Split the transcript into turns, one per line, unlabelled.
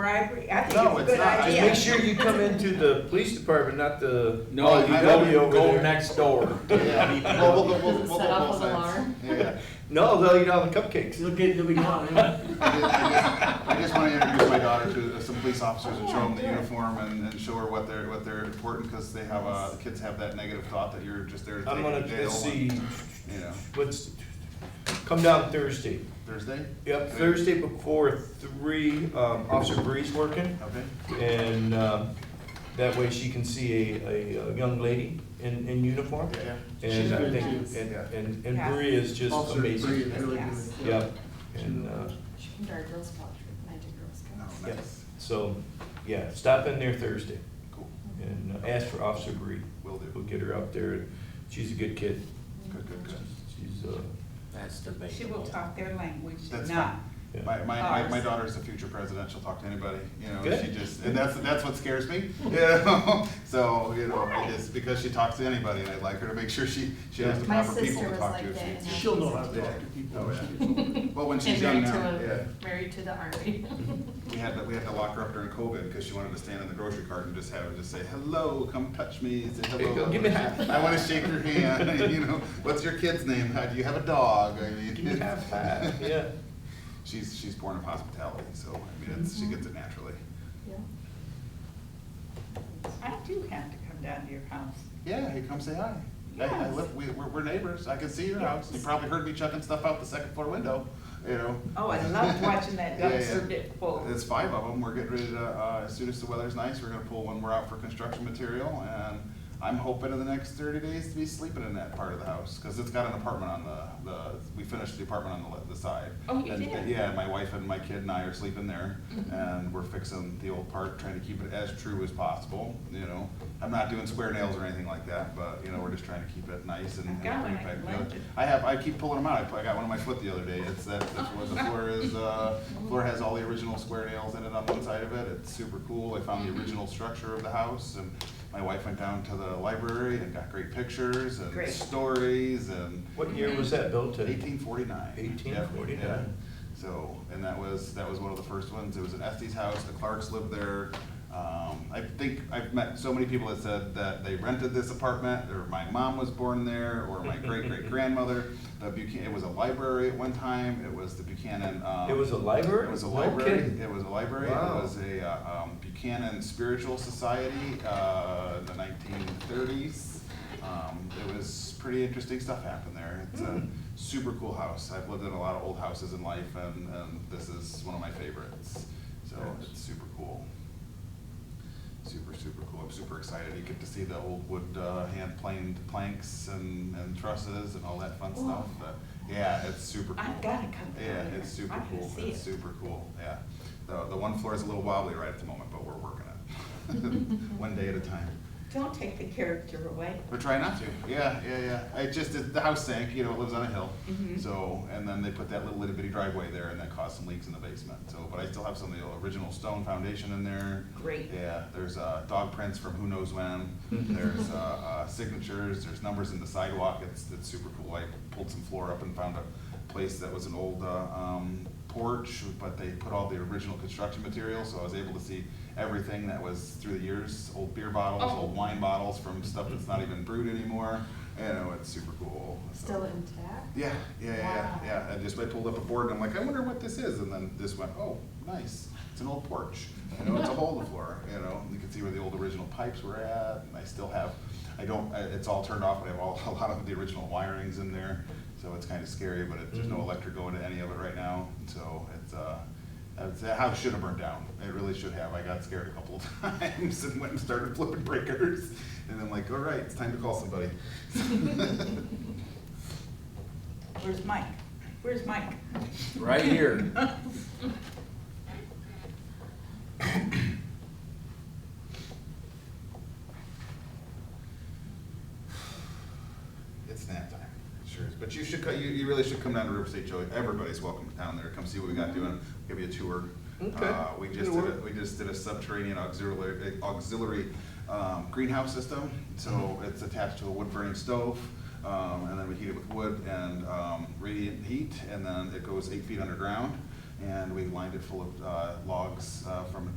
bribery, I think
No,
it's a
it's
good
not.
Just
idea.
make sure you come into the police department, not the.
No,
you
I
go-
love you over
Go
there.
next door.
Yeah. Well, well, well,
Does it
well,
set
well,
off
well,
an
well,
alarm?
Yeah.
No, they'll eat all the cupcakes.
You'll get, you'll be gone. yeah.
I just- I just- I just want to introduce my daughter to some police officers and show them the uniform and, and show her what they're, what they're important, because they have, uh, the kids have that negative thought that you're just there to take
I'm gonna,
them to
let's
jail.
see,
and- You know,
let's, come down Thursday.
Thursday?
Yep, Thursday before three, um, Officer Bree's working.
Okay.
And, um, that way she can see a, a, a young lady in, in uniform.
Yeah.
And I
good
think,
too.
and,
Yeah.
and, and Bree is just
Officer Bree is
amazing.
really good.
Yes.
Yeah, and, uh,
She came to our Girl Scout trip, and I did Girl
No,
Scouts.
yeah,
nice.
so, yeah, stop in there Thursday
Cool.
and uh, ask for Officer Bree.
Will
We'll
do.
get her out there. She's a good kid.
Good, good, good.
She's, uh,
That's debatable.
She will talk their language,
That's
not.
yeah.
My, my, my, my daughter's the future president, she'll talk to anybody, you know,
Good.
she just, and that's, that's what scares me, you know? So, you know, it's because she talks to anybody, and I'd like her to make sure she, she has the
My
proper people
sister
to
was
talk
like
to. if
that,
she-
and
if she-
She'll know how to talk to people.
Oh, yeah. Well, when she's young now,
And married
yeah.
to a, married to the army.
We had, to- we had to lock her up during COVID because she wanted to stand in the grocery cart and just have, her just say, hello, come touch me, say
Hey,
hello.
go give me a high
I want to shake your hand, you know, what's your kid's name? How, do you have a dog? I mean,
Give me half five, yeah.
She's, she's born of hospitality, so, I mean, it's, she
Mm-hmm.
gets it naturally.
Yeah.
I do have to come down to your house.
Yeah, hey, come say hi. I, I
Yes.
live, we, we're, we're neighbors, I can see your house, you probably heard me chucking stuff out the second floor window, you know?
Oh, I loved watching that
Yeah, yeah.
dumpster get full.
There's five of them, we're getting ready to, uh, as soon as the weather's nice, we're gonna pull one more out for construction material, and I'm hoping in the next thirty days to be sleeping in that part of the house, cause it's got an apartment on the, the, we finished the apartment on the, le- the side.
Oh, you
And-
did? Mm-hmm.
Yeah, my wife and my kid and I are sleeping there, and we're fixing the old part, trying to keep it as true as possible, you know? I'm not doing square nails or anything like that, but, you know, we're just trying to keep it nice and.
I've
and
got
bring
one, I
it back together.
liked it.
I have, I keep pulling them out, I put- I got one on my foot the other day, it's that, that's what the floor is, uh, floor has all the original square nails in it on one side of it, it's super cool, I found the original structure of the house, and my wife went down to the library and got great pictures and
Great.
stories and
What year was that built in?
eighteen forty-nine.
1849.
So, and that was, that was one of the first ones, it was an Estes house, the Clarks lived there. Um, I think, I've met so many people that said that they rented this apartment, or my mom was born there, or my great-great-grandmother. The Buchanan, it was a library at one time, it was the Buchanan, um.
It was a library?
It was a
No
library,
kidding.
it was a library, it
Wow.
was a uh, um, Buchanan Spiritual Society, uh, in the nineteen thirties. Um, it was pretty interesting stuff happened there, it's
Hmm.
a super cool house, I've lived in a lot of old houses in life, and, and this is one of my favorites, so it's super cool. Super, super cool, I'm super excited, you get to see the old wood, uh, hand planed planks and, and trusses and all that fun
Wow.
stuff, but, yeah, it's super cool.
I've gotta come down
Yeah,
there.
it's
I
super
can
cool,
see
it's
it.
super cool, yeah. The, the one floor is a little wobbly right at the moment, but we're working it, one day at a time.
Don't take the character away.
We're trying not to, yeah, yeah, yeah. I just, the house sank, you know, it lives on a hill,
Mhm.
so, and then they put that little itty bitty driveway there, and that caused some leaks in the basement, so, but I still have some of the original stone foundation in there.
Great.
Yeah, there's, uh, dog prints from who knows when, there's, uh, uh, signatures, there's numbers in the sidewalk, it's, it's super cool. I pulled some floor up and found a place that was an old, uh, um, porch, but they put all the original construction material, so I was able to see everything that was through the years, old beer bottles,
Oh.
old wine bottles from stuff that's not even brewed anymore. You know, it's super cool. so-
Still intact?
Yeah, yeah, yeah,
Wow.
yeah, yeah. I just, I pulled up a board and I'm like, I wonder what this is, and then this went, oh, nice, it's an old porch. You know, it's a hole in the floor, you know, you can see where the old original pipes were at, and I still have, I don't, I- it's all turned off, but I have all, a lot of the original wirings in there. So it's kind of scary, but it- there's no
Mhm.
electric going to any of it right now, so it's, uh, it's- the house should have burned down. It really should have. I got scared a couple of times and went and started flipping breakers, and then like, all right, it's time to call somebody.
Where's Mike? Where's Mike?
Right here.
It's nap time. It Sure is. But you should, co- you, you really should come down to River State Joey. Everybody's welcome down there. Come see what we got doing. Give you a tour.
Okay.
Uh, we just
Good
did, a-
work.
we just did a subterranean auxiliary, eh, auxiliary, um, greenhouse system. So it's attached to a wood burning stove. Um, and then we heat it with wood and, um, radiant heat, and then it goes eight feet underground. and we lined it full of uh, logs uh, from